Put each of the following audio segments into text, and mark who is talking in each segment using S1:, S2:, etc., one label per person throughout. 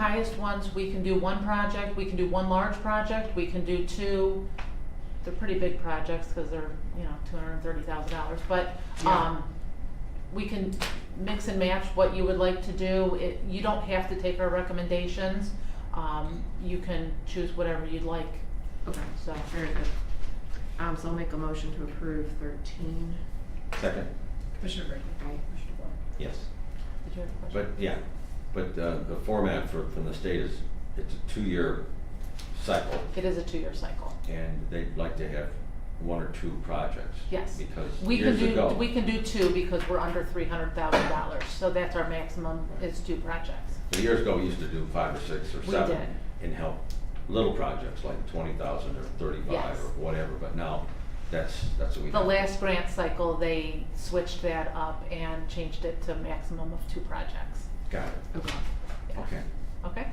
S1: Highest ones, we can do one project, we can do one large project, we can do two, they're pretty big projects, cause they're, you know, two hundred and thirty thousand dollars, but, um, we can mix and match what you would like to do, it, you don't have to take our recommendations, um, you can choose whatever you'd like,
S2: Okay,
S1: so.
S2: very good. Um, so I'll make a motion to approve thirteen.
S3: Second,
S2: Commissioner Brady. Aye, Commissioner DeBoer.
S3: yes,
S1: Did you have a
S3: but
S1: question?
S3: yeah, but uh, the format for, from the state is, it's a two-year cycle,
S1: It is a two-year cycle,
S3: and they'd like to have one or two projects.
S1: Yes.
S3: Because
S1: we can
S3: years
S1: do,
S3: ago.
S1: we can do two because we're under three hundred thousand dollars, so that's our maximum, is two projects.
S3: so Years ago, we used to do five or six or
S1: We
S3: seven.
S1: did.
S3: And help little projects like twenty thousand or thirty-five
S1: Yes.
S3: or whatever, but now, that's, that's what we.
S1: The
S3: have.
S1: last grant cycle, they switched that up and changed it to maximum of two projects.
S3: Got it,
S2: Okay.
S1: Yeah.
S3: okay.
S1: Okay?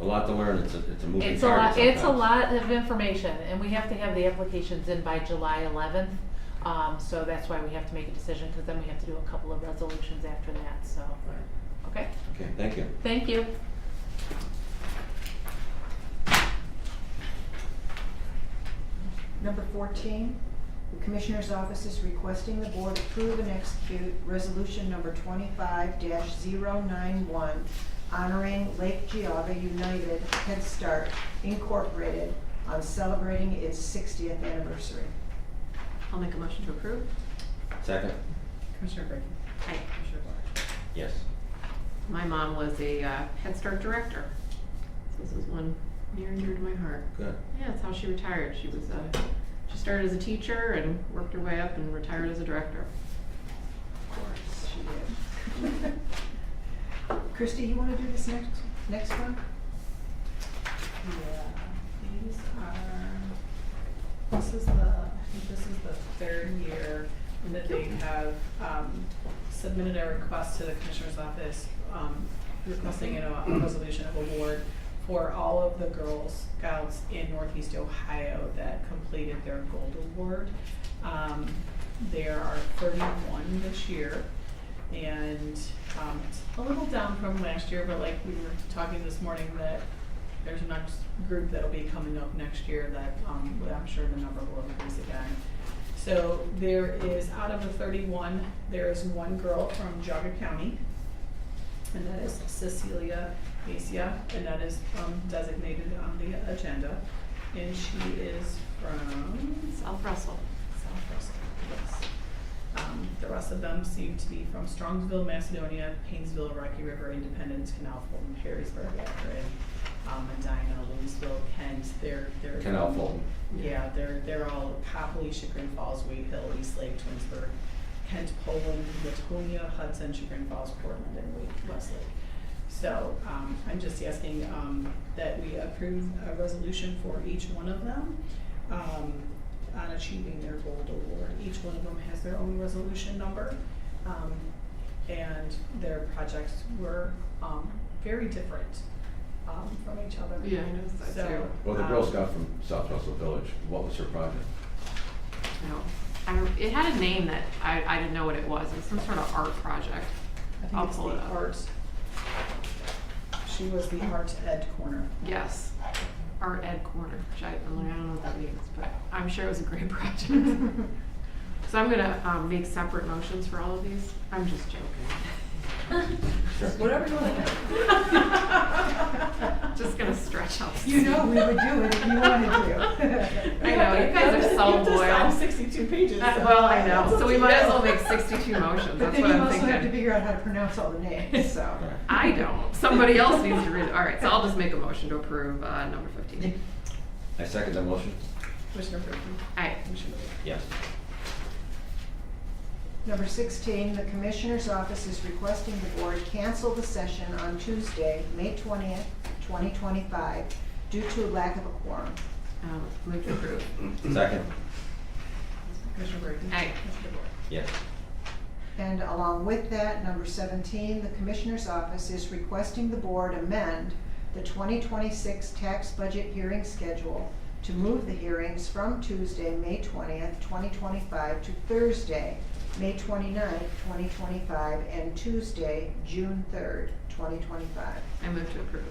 S3: A lot to learn, it's a, it's a moving
S1: It's a
S3: target
S1: lot, it's a
S3: sometimes.
S1: lot of information, and we have to have the applications in by July eleventh. Um, so that's why we have to make a decision, because then we have to do a couple of resolutions after that, so,
S3: Right.
S1: okay?
S3: Okay, thank you.
S1: Thank you.
S4: Number 14, the Commissioner's Office is requesting the Board approve and execute Resolution Number 25-091, honoring Lake Geogga United Head Start Incorporated on celebrating its 60th anniversary.
S2: I'll make a motion to approve.
S3: Second,
S4: Commissioner Brady?
S2: Aye, Commissioner DeBoer.
S3: yes,
S2: My mom was a uh, Head Start director. So this is one near and dear to my heart.
S3: good,
S2: Yeah, that's how she retired. She was, uh, she started as a teacher and worked her way up and retired as a director.
S4: Of course she did. Christie, you want to do this next, next one?
S5: Yeah, these are, this is the, I think this is the third year that they have um, submitted a request to the Commissioner's Office um, requesting you know, a resolution of award for all of the Girl Scouts in Northeast Ohio that completed their gold award. Um, There are thirty-one this year. And um, it's a little down from last year, but like we were talking this morning that there's a next group that'll be coming up next year that um, I'm sure the number will increase again. So there is, out of the thirty-one, there is one girl from Jaga County. And that is Cecilia Macia, and that is um, designated on the agenda. And she is from
S2: South Russell.
S5: South Russell, yes. Um, the rest of them seem to be from Strongsville, Macedonia, Painesville, Rocky River, Independence, Canal Fulton, Perrysburg, Akron, um, Medina, Louisville, Kent, they're, they're.
S3: Canal Fulton.
S5: Yeah, they're, they're all Copley, Chagrin Falls, Wade Hill, East Lake, Twinsburg, Kent, Poland, Latonia, Hudson, Chagrin Falls, Portland, and Wade- Westlake. So, um, I'm just asking, um, that we approve a resolution for each one of them, um, on achieving their gold award. Each one of them has their own resolution number. Um, and their projects were, um, very different, um, from each other.
S2: Yeah, I noticed that
S5: So,
S2: too.
S3: Well, the Girl
S5: um,
S3: Scout from South Russell Village, what was her project?
S2: No, I, it had a name that I, I didn't know what it was. It was some sort of art project.
S5: I
S2: I'll
S5: think it's
S2: pull it
S5: the
S2: up.
S5: art. She was the art ed corner.
S2: Yes, Art Ed Corner, which I, I'm like, I don't know what that means, but I'm sure it was a great project. So I'm gonna, um, make separate motions for all of these. I'm just joking.
S3: Sure.
S4: Whatever you want.
S2: Just gonna stretch out.
S4: You know we would do it if you wanted to.
S2: I know, you guys are so
S5: I'm
S2: loyal.
S5: sixty-two pages.
S2: That-
S5: so-
S2: Uh, Well, I know, so we might as well make sixty-two motions,
S4: But
S2: that's
S4: then
S2: what
S4: you
S2: I'm
S4: also
S2: thinking.
S4: have to figure out how to pronounce all the names, so.
S3: All right.
S2: I don't, somebody else needs to read it. All right, so I'll just make a motion to approve, uh, number fifteen.
S3: I second the motion.
S5: Commissioner Brinkley,
S2: Aye.
S5: Commissioner Rea.
S3: Yes.
S4: Number 16, the Commissioner's Office is requesting the Board cancel the session on Tuesday, May 20th, 2025, due to lack of a quorum.
S2: Um, move to approve.
S3: Second,
S5: Commissioner Brinkley.
S2: Aye.
S5: Commissioner DeBoer.
S3: yes.
S4: And along with that, number 17, the Commissioner's Office is requesting the Board amend the 2026 tax budget hearing schedule to move the hearings from Tuesday, May 20th, 2025, to Thursday, May 29th, 2025, and Tuesday, June 3rd, 2025.
S2: I move to approve.